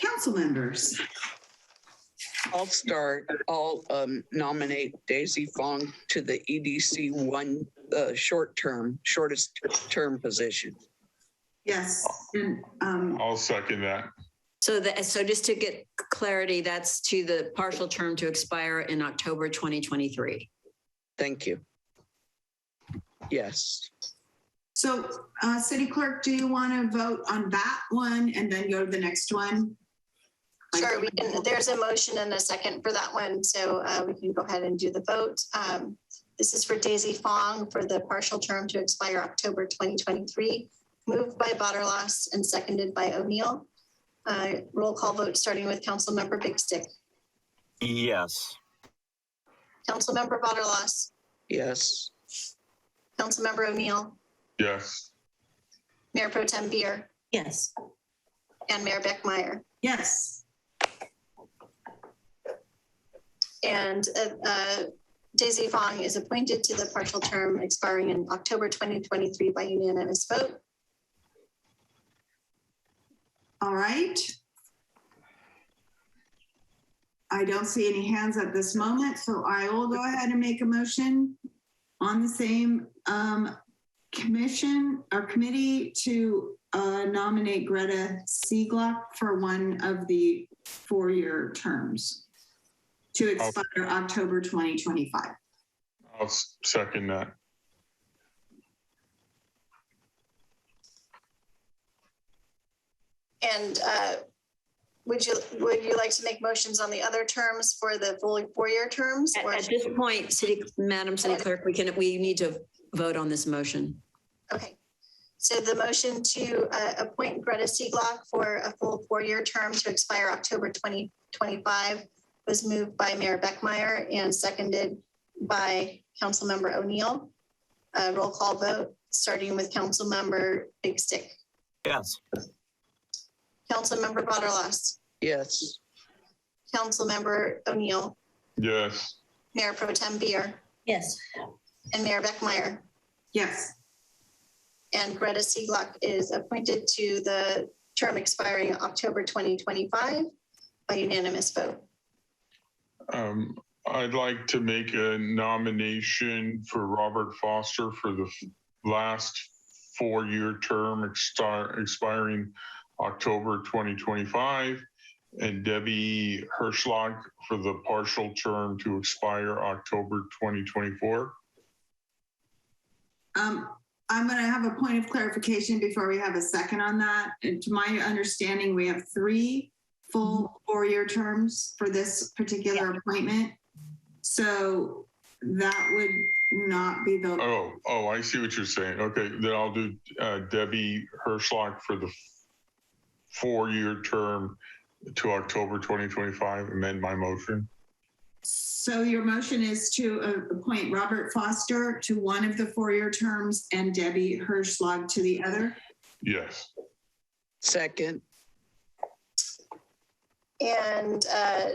council members. I'll start. I'll um, nominate Daisy Fong to the EDC one, uh, short term, shortest term position. Yes, and, um, I'll second that. So that, so just to get clarity, that's to the partial term to expire in October 2023. Thank you. Yes, so, uh, city clerk, do you want to vote on that one and then go to the next one? Sure, we can, there's a motion and a second for that one, so uh, we can go ahead and do the vote. Um, This is for Daisy Fong for the partial term to expire October 2023, moved by Butterlos and seconded by O'Neill. Uh, Roll call vote, starting with Councilmember Big Stick. Yes. Councilmember Butterlos, yes, Councilmember O'Neill, Yes, Mayor Pro Tem Beer, Yes. and Mayor Beckmeyer. Yes, And uh, uh, Daisy Fong is appointed to the partial term expiring in October 2023 by unanimous vote. all right. I don't see any hands at this moment, so I will go ahead and make a motion on the same, um, commission or committee to, uh, nominate Greta Seaglock for one of the four-year terms to expire October 2025. I'll s- second that. And uh, would you, would you like to make motions on the other terms for the full four-year terms? At, or- at this point, city, Madam City Clerk, we can, we need to vote on this motion. Okay. So the motion to uh, appoint Greta Seaglock for a full four-year term to expire October 2025 was moved by Mayor Beckmeyer and seconded by Councilmember O'Neill. Uh, Roll call vote, starting with Councilmember Big Stick. Yes. Councilmember Butterlos, yes, Councilmember O'Neill, Yes, Mayor Pro Tem Beer, Yes. and Mayor Beckmeyer. Yes, And Greta Seaglock is appointed to the term expiring October 2025 by unanimous vote. um, I'd like to make a nomination for Robert Foster for the f- last four-year term extar- expiring October 2025 and Debbie Hirschlock for the partial term to expire October 2024. Um, I'm gonna have a point of clarification before we have a second on that. And to my understanding, we have three full four-year terms for this particular appointment. So that would not be the, Oh, oh, I see what you're saying. Okay, then I'll do uh, Debbie Hirschlock for the f- four-year term to October 2025, amend my motion. so your motion is to uh, appoint Robert Foster to one of the four-year terms and Debbie Hirschlag to the other? Yes, second, And uh,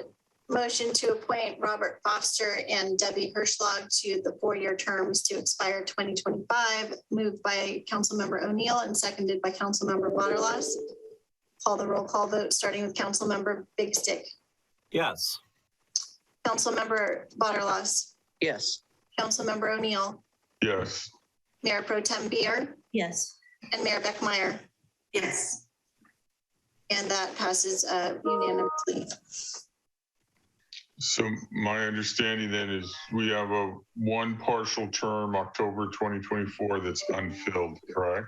motion to appoint Robert Foster and Debbie Hirschlog to the four-year terms to expire 2025, moved by Councilmember O'Neill and seconded by Councilmember Waterloss. Call the roll call vote, starting with Councilmember Big Stick. Yes. Councilmember Waterloss, yes, Councilmember O'Neill, yes, Mayor Pro Tem Beer, Yes. and Mayor Beckmeyer. Yes. And that passes uh, unanimously. so my understanding then is we have a one partial term, October 2024, that's unfilled, correct?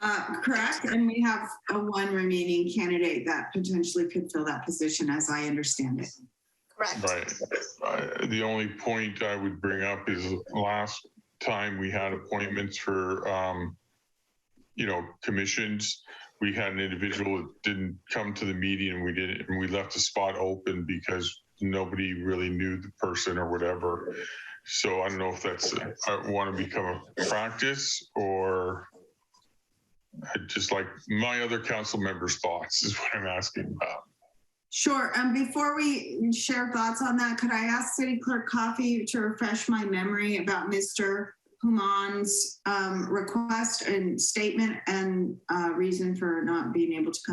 Uh, correct, and we have a one remaining candidate that potentially could fill that position, as I understand it. Correct. Right. I- The only point I would bring up is last time we had appointments for, um, you know, commissions, we had an individual that didn't come to the meeting and we didn't, and we left the spot open because nobody really knew the person or whatever. So I don't know if that's, I want to become a practice or I'd just like my other council members' thoughts is what I'm asking about. Sure. And before we share thoughts on that, could I ask City Clerk Coffey to refresh my memory about Mr. Human's um, request and statement and uh, reason for not being able to come